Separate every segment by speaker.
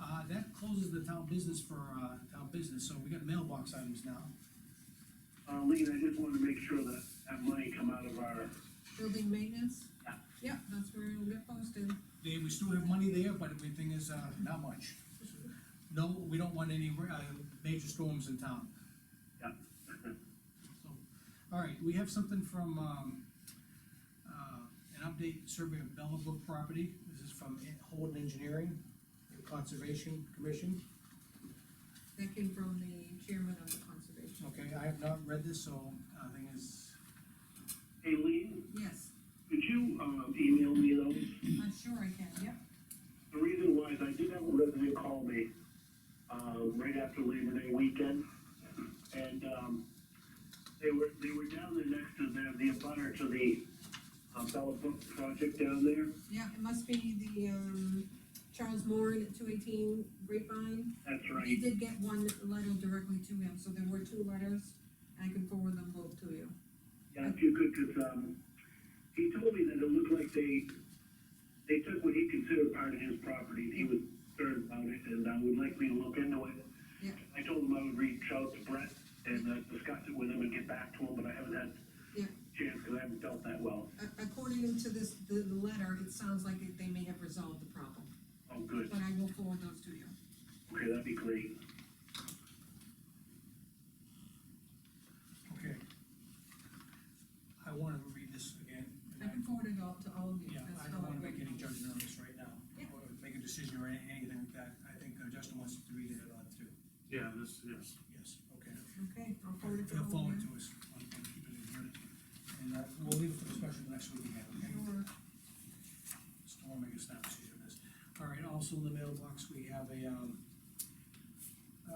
Speaker 1: Uh, closes the town business for, uh, town business, so we got mailbox items now.
Speaker 2: Uh, Lean, I just wanted to make sure that that money come out of our,
Speaker 3: Building maintenance?
Speaker 2: Yeah.
Speaker 3: Yeah, that's where it'll get posted.
Speaker 1: They, we still have money there, but the thing is, uh, not much. No, we don't want any, uh, major storms in town.
Speaker 2: yeah.
Speaker 1: So, All right, we have something from, um, uh, an update survey of Bellabrook property. This is from Holden Engineering and Conservation Commission.
Speaker 3: That came from the chairman of the conservation.
Speaker 1: Okay, I have not read this, so, uh, thing is,
Speaker 2: Hey, Lean,
Speaker 3: Yes,
Speaker 2: could you, uh, email me those?
Speaker 3: I'm sure I can, yep.
Speaker 2: The reason why is I did have a resident call me, um, right after Labor Day weekend, and, um, they were, they were down there next to the, the abutter to the, uh, Bella Book project down there,
Speaker 3: Yeah, it must be the, um, Charles Moran at two eighteen Grapevine.
Speaker 2: that's
Speaker 3: He
Speaker 2: right,
Speaker 3: did get one letter directly to him, so there were two letters. I can forward them both to you.
Speaker 2: yeah, if you could, cause, um, he told me that it looked like they, they took what he considered part of his property, and he was concerned about it, and, uh, would like me to look into it.
Speaker 3: Yeah.
Speaker 2: I told him I would reach out to Brett and, uh, discuss it with him and get back to him, but I haven't had
Speaker 3: Yeah,
Speaker 2: chance, cause I haven't dealt that well.
Speaker 3: a- according to this, the, the letter, it sounds like they may have resolved the problem,
Speaker 2: Oh, good.
Speaker 3: but I will forward those to you.
Speaker 2: Okay, that'd be great.
Speaker 1: okay. I wanna read this again. and
Speaker 3: I can forward it all to all of you.
Speaker 1: Yeah,
Speaker 3: That's
Speaker 1: I
Speaker 3: how
Speaker 1: don't wanna make
Speaker 3: read
Speaker 1: any
Speaker 3: it.
Speaker 1: judgment on this right now,
Speaker 3: Yeah.
Speaker 1: or make a decision or any- anything like that. I think uh, Justin wants to read it on too.
Speaker 4: Yeah, this, yes.
Speaker 1: Yes, okay.
Speaker 3: Okay, I'll forward it to all
Speaker 1: He'll forward
Speaker 3: of you.
Speaker 1: it to us. I'll- I'll keep it in here. And, uh, we'll leave it for discussion next week again, okay?
Speaker 3: Sure.
Speaker 1: Just don't wanna make a snap decision on this. All right, also in the mailbox, we have a, um, uh,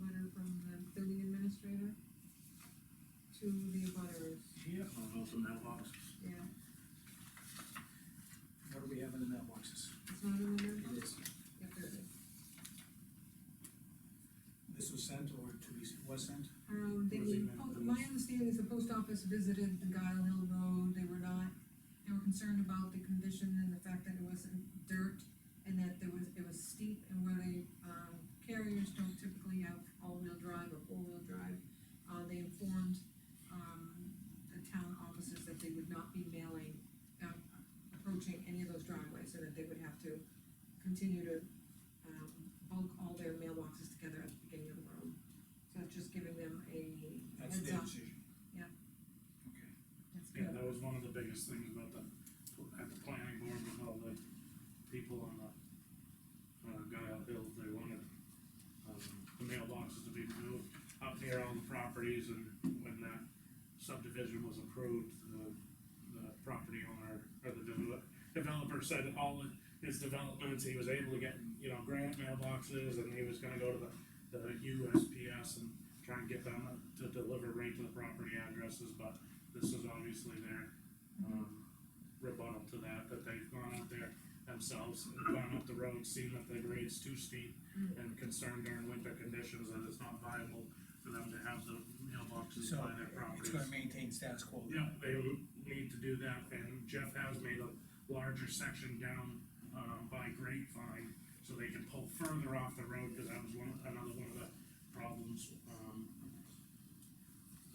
Speaker 3: letter from the building administrator to the abutters,
Speaker 1: here,
Speaker 4: I'll go to mailbox.
Speaker 3: yeah,
Speaker 1: what do we have in the mailboxes?
Speaker 3: it's not in the
Speaker 1: It
Speaker 3: mailbox?
Speaker 1: is,
Speaker 3: Yeah, there it is.
Speaker 1: this was sent or to be, was sent?
Speaker 3: Um, the,
Speaker 4: Where's the email?
Speaker 3: po- my understanding is the post office visited the Guile Hill Road, they were not, they were concerned about the condition and the fact that it wasn't dirt, and that there was, it was steep, and where they, um, carriers don't typically have all-wheel drive or four-wheel drive, uh, they informed, um, the town offices that they would not be mailing, um, approaching any of those driveways, so that they would have to continue to, um, bulk all their mailboxes together at the beginning of the road. So it's just giving them a
Speaker 1: That's
Speaker 3: heads
Speaker 1: their
Speaker 3: up.
Speaker 1: decision.
Speaker 3: Yeah.
Speaker 1: Okay.
Speaker 3: That's
Speaker 4: Yeah,
Speaker 3: good.
Speaker 4: that was one of the biggest things about the, at the planning board with all the people on the, uh, Guile Hill, they wanted, um, the mailboxes to be moved up near all the properties and when that subdivision was approved, the, the property owner or the devel- developer said that all of his developments, he was able to get, you know, grant mailboxes and he was gonna go to the, the USPS and try and get them to deliver right to the property addresses, but this is obviously their, um, rebuttal to that, that they've gone out there themselves, gone up the road, seen that the grade's too steep and concerned during winter conditions that it's not viable for them to have the mailboxes
Speaker 1: So,
Speaker 4: by their
Speaker 1: it's
Speaker 4: properties.
Speaker 1: gonna maintain status quo. then.
Speaker 4: Yeah, they need to do that, and Jeff has made a larger section down, um, by Grapevine, so they can pull further off the road, cause that was one, another one of the problems, um.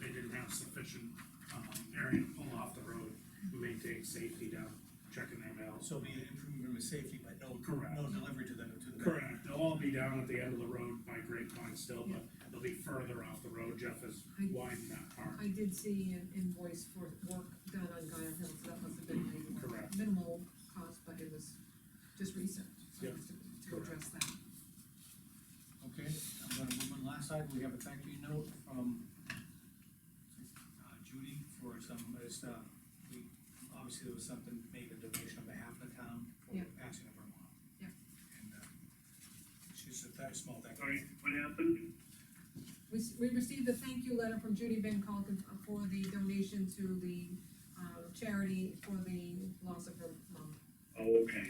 Speaker 4: They didn't have sufficient, um, area to pull off the road, maintain safety down, checking their mails.
Speaker 1: So be an improvement in safety, but no,
Speaker 4: Correct.
Speaker 1: no delivery to the, to the.
Speaker 4: Correct, they'll all be down at the end of the road by Grapevine still, but they'll be further off the road, Jeff has widened that part,
Speaker 3: I did see an invoice for work done on Guile Hill, so that must have been minimal-
Speaker 4: Correct.
Speaker 3: minimal cost, but it was just recent, so
Speaker 4: Yeah.
Speaker 3: just to- to address that.
Speaker 1: Okay, I'm gonna move on last side, we have a thank you note from uh, Judy for some, it's, uh, we, obviously there was something, made a donation on behalf of the town for
Speaker 3: Yeah.
Speaker 1: passing of her mom.
Speaker 3: Yeah.
Speaker 1: And, uh, she's a very small thank you.
Speaker 2: Sorry, what happened?
Speaker 3: We, s- we received a thank you letter from Judy Van Calkin for the donation uh, to the, um, charity for the loss of her mom.
Speaker 2: Oh, okay.